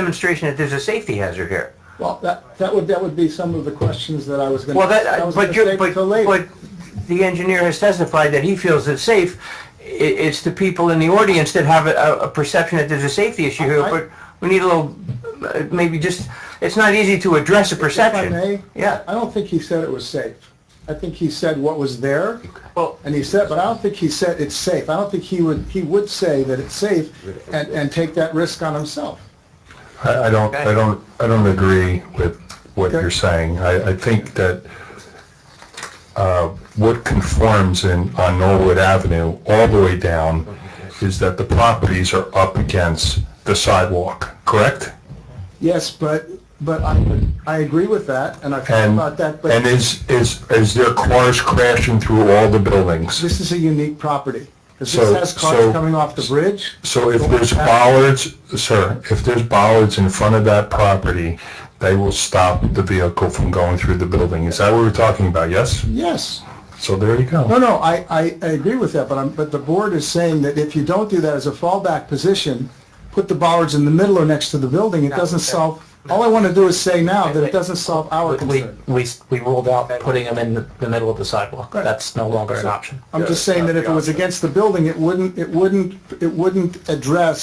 demonstration that there's a safety hazard here. Well, that, that would, that would be some of the questions that I was going to. Well, that, but you're, but, but the engineer has testified that he feels it's safe. I it's the people in the audience that have a, a perception that there's a safety issue here, I- but we need a little, uh, maybe just, it's not easy to address a perception. may, I Yeah, don't think he said it was safe. I think he said what was there. Well- And he said, but I don't think he said it's safe. I don't think he would, he would say that it's safe and, and take that risk on himself. I I don't, I don't, I don't agree with what Okay. you're saying. I, I think that uh, what conforms in, on Norwood Avenue all the way down is that the properties are up against the sidewalk, correct? Yes, but, but I, would- I agree with that and I've thought And, about that, and but is, is, is there cars crashing through all the buildings? this is a unique property. Because So- this has cars so- coming off the bridge. So if there's bollards, sir, if there's bollards in front of that property, they will stop the vehicle from going through the building. Is that what we're talking about, yes? Yes. So there you go. No, no, I, I, I agree with that, but I'm, but the board is saying that if you don't do that as a fallback position, put the bollards in the middle or next to the building, it doesn't solve, all I want to do is say now that it doesn't solve our We, concern. we, we ruled out putting them in the the middle of the sidewalk. That's no longer an option. I'm just saying that if it was against the building, it wouldn't, it wouldn't, it wouldn't address,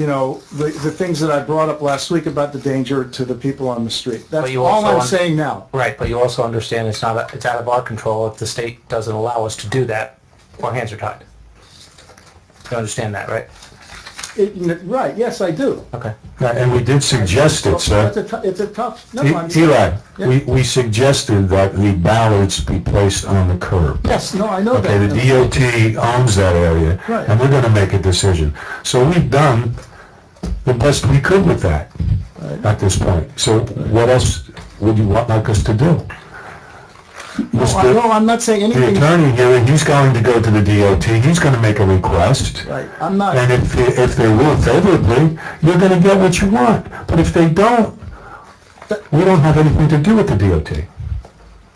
you know, the, the things that I brought up last week about the danger to the people on the street. That's But you all also I'm want- saying now. Right, but you also understand it's not, it's out of our control if the state doesn't allow us to do that, our hands are tied. You understand that, right? It- Right, yes, I do. Okay. And we did suggest it, It's a, sir. tou- it's a tough, no, E- I'm. Eli, we, we suggested that the ballards be placed on the curb. Yes, no, I know that. Okay, the DOT owns that area, Right. and we're gonna make a decision. So we've done the best we could with that at this point. So what else would you want like us to do? No, I- no, Mr. I'm not saying The anything attorney here, he's going to go to the DOT, he's gonna make a request. Right, I'm not, And if, if they will favorably, you're gonna get what you want. But if they don't, we don't have anything to do with the DOT.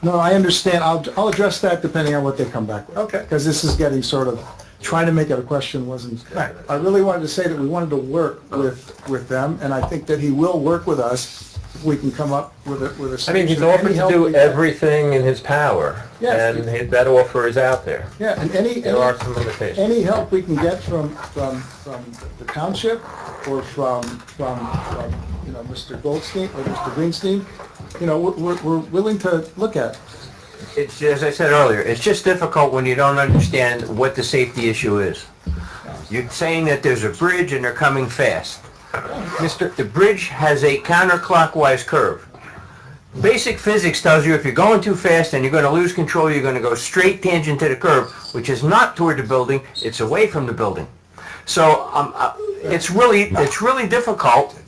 no, I understand, I'll, I'll address that depending on what they come back with. Okay. Because this is getting sort of, trying to make it a question wasn't, I really wanted to say that we wanted to work with, with them, and I think that he will work with us if we can come up with a, with a I solution. mean, he's offered Any to help we do can- everything in his power, Yes. and he- that offer is out there. Yeah, and any, There are any, some limitations. any help we can get from, from, from the township or from, from, from, you know, Mr. Goldstein or Mr. Greenstein, you know, we're, we're- we're willing to look at. it's, as I said earlier, it's just difficult when you don't understand what the safety issue is. You're saying that there's a bridge and they're coming fast. Mister, the bridge has a counterclockwise curve. Basic physics tells you if you're going too fast and you're going to lose control, you're going to go straight tangent to the curb, which is not toward the building, it's away from the building. So um, uh, it's really, it's really difficult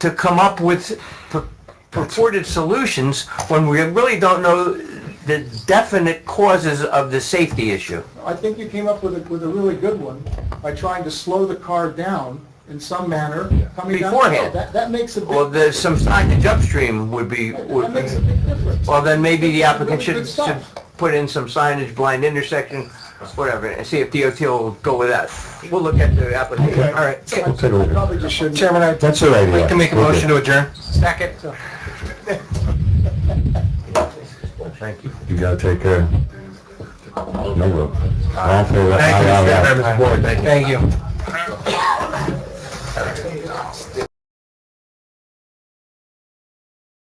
to come up with pur- purported solutions when we really don't know the definite causes of the safety issue. I think you came up with a, with a really good one by trying to slow the car down in some manner coming down. Beforehand. That, that makes a Well, big, there's some signage upstream would be, that would makes a big difference. well, then maybe the applicant Really should, good should stuff. put in some signage, blind intersection, whatever, and see if DOT will go with that. We'll look at the application, all right. So I- We'll take a look. I Probably just shouldn't. That's all right, Eli. Can make a motion to adjourn? Second. Thank you. You gotta take care. No, rope. I don't feel that. Thank you, Mr. I- I- I- Chairman, Board, thank you.